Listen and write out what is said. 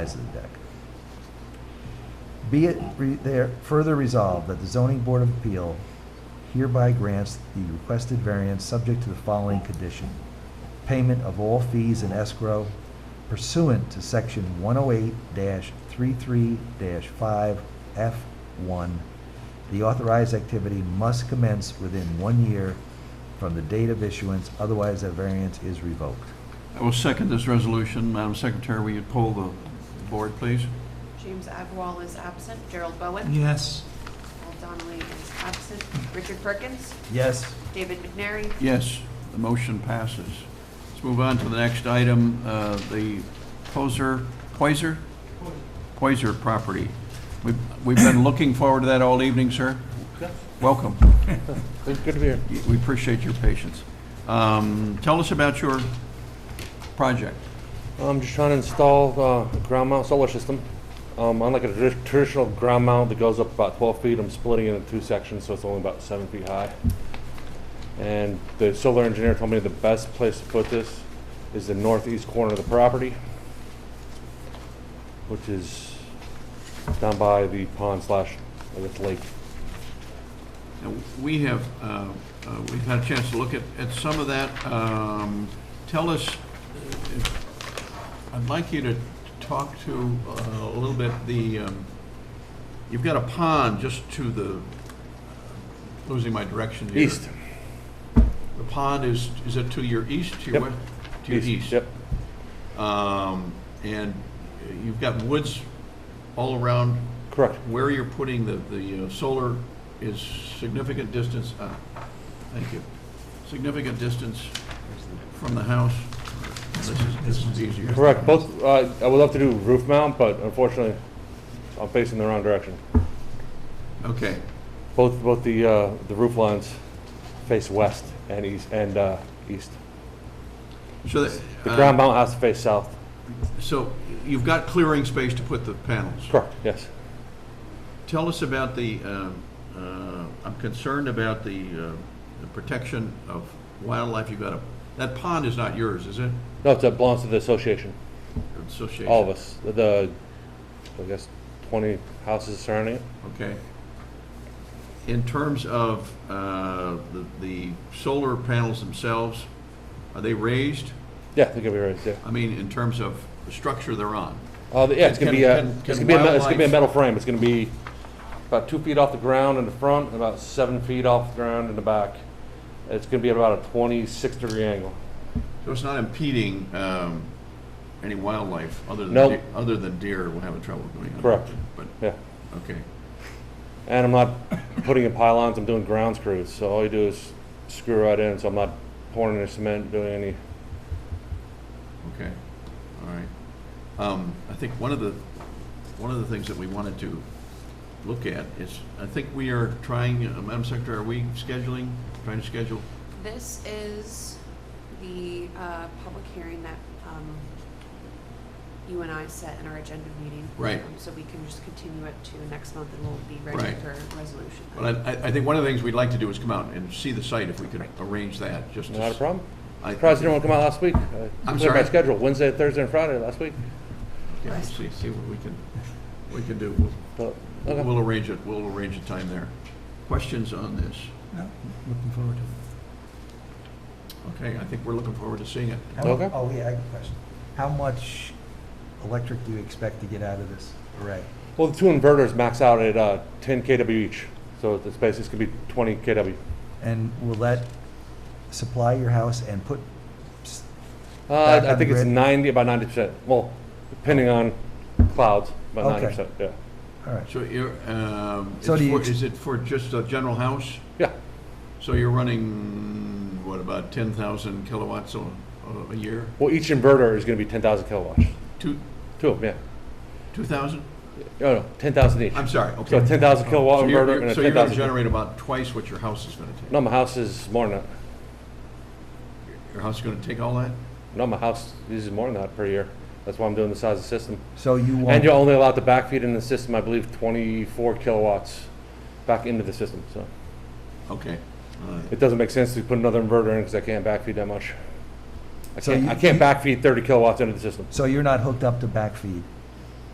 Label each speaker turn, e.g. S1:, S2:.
S1: size of the deck. Be it re- there further resolved that the zoning board of appeal hereby grants the requested variance subject to the following condition. Payment of all fees in escrow pursuant to section 108-33-5F1. The authorized activity must commence within one year from the date of issuance, otherwise that variance is revoked.
S2: I will second this resolution. Madam Secretary, will you poll the board, please?
S3: James Agwal is absent. Gerald Bowen.
S4: Yes.
S3: Paul Donnelly is absent. Richard Perkins.
S1: Yes.
S3: David McNary.
S2: Yes, the motion passes. Let's move on to the next item, uh, the Poser, Poiser? Poiser property. We've we've been looking forward to that all evening, sir. Welcome.
S5: Good good to be here.
S2: We appreciate your patience. Um, Tell us about your project.
S5: I'm just trying to install uh, a ground mount solar system. Um, Unlike a tradi- traditional ground mount that goes up about 12 feet, I'm splitting it into two sections, so it's only about seven feet high. And the solar engineer told me the best place to put this is the northeast corner of the property, which is down by the pond slash, I guess, lake.
S2: Now, We have, uh, uh, we've had a chance to look at, at some of that. Um, Tell us, uh, if- I'd like you to talk to uh, a little bit the, um, you've got a pond just to the, losing my direction here.
S5: East.
S2: The pond is, is it to your east, to your
S5: Yep.
S2: west? To your east?
S5: Yep.
S2: Um, And you've got woods all around
S5: Correct.
S2: where you're putting the, the uh, solar is significant distance, uh, thank you, significant distance from the house. This is, this is easier.
S5: Correct. Both, uh, I would love to do roof mount, but unfortunately, I'm facing the wrong direction.
S2: Okay,
S5: Both, both the, uh, the roof lines face west and east, and, uh, east.
S2: so that.
S5: The
S2: uh,
S5: ground mount has to face south.
S2: So you've got clearing space to put the panels.
S5: Correct, yes.
S2: Tell us about the, um, uh, I'm concerned about the uh, the protection of wildlife. You've got a, that pond is not yours, is it?
S5: No, it's- it belongs to the association,
S2: Association?
S5: all of us, the, I guess, twenty houses surrounding it.
S2: Okay. In terms of uh, the the solar panels themselves, are they raised?
S5: Yeah, they're gonna be raised, yeah.
S2: I mean, in terms of the structure they're on?
S5: Uh, yeah, it's gonna be, uh,
S2: Can- can-
S5: it's
S2: can
S5: gonna be, a me- it's gonna be a
S2: wildlife-
S5: metal frame. It's gonna be about two feet off the ground in the front, and about seven feet off the ground in the back. It's gonna be at about a twenty-six degree angle.
S2: So it's not impeding um, any wildlife other than,
S5: Nope.
S2: de- other than deer will have trouble going on?
S5: Correct.
S2: But,
S5: Yeah.
S2: okay.
S5: And I'm not putting in pylons, I'm doing ground screws, so all you do is screw right in, so I'm not pouring any cement, doing any,
S2: Okay, all right. Um, I think one of the, one of the things that we wanted to look at is, I think we are trying, uh, Madam Secretary, are we scheduling, trying to schedule?
S3: This is the uh, public hearing that um, you and I set in our agenda meeting.
S2: Right.
S3: Um, So we can just continue it to next month and we'll be ready
S2: Right.
S3: for resolution. then.
S2: But I, I- I think one of the things we'd like to do is come out and see the site, if we could arrange that, just to...
S5: not a problem.
S2: I-
S5: Surprised anyone come out last week. I
S2: I'm
S5: cleared My
S2: sorry?
S5: schedule, Wednesday, Thursday, and Friday last week.
S2: Yeah, we'll see, see what we can, we can do. We'll-
S5: But, okay.
S2: We'll arrange it, we'll arrange a time there. Questions on this?
S4: No, looking forward to it.
S2: Okay, I think we're looking forward to seeing it.
S1: How-
S5: Okay.
S1: Oh, yeah, I have a question. How much electric do you expect to get out of this array?
S5: Well, the two inverters max out at, uh, ten KW each, so the space is gonna be twenty KW. Uh,
S1: And will that supply your house and put, s-
S5: Uh,
S1: Back
S5: I
S1: on
S5: think it's
S1: grid.
S5: ninety, about ninety percent, well, depending on clouds, about
S1: Okay.
S5: ninety percent, yeah.
S1: all right,
S2: So you're, um, it's
S1: So do you
S2: for-
S1: ex-
S2: is it for just a general house?
S5: Yeah,
S2: So you're running, what, about 10,000 kilowatts a, a year?
S5: well, each inverter is gonna be ten thousand kilowatts,
S2: Two,
S5: two of them,
S2: 2,000?
S5: yeah. Oh, No, no, ten thousand each.
S2: I'm sorry, okay.
S5: So ten thousand kilowatt
S2: So you're-
S5: inverter
S2: you're-
S5: and a
S2: So you're
S5: ten
S2: going to
S5: thousand.
S2: generate about twice what your house is going to take?
S5: No, my house is more than that.
S2: Your house is going to take all that?
S5: No, my house uses more than that per year. That's why I'm doing the size of the system.
S1: so you
S5: And
S1: won't,
S5: you're only allowed to backfeed in the system, I believe, twenty-four kilowatts back into the system, so.
S2: Okay, all right.
S5: It doesn't make sense to put another inverter in because I can't backfeed that much. I
S1: So
S5: can't,
S1: you-
S5: I can't backfeed thirty kilowatts into the system.
S1: so you're not hooked up to backfeed?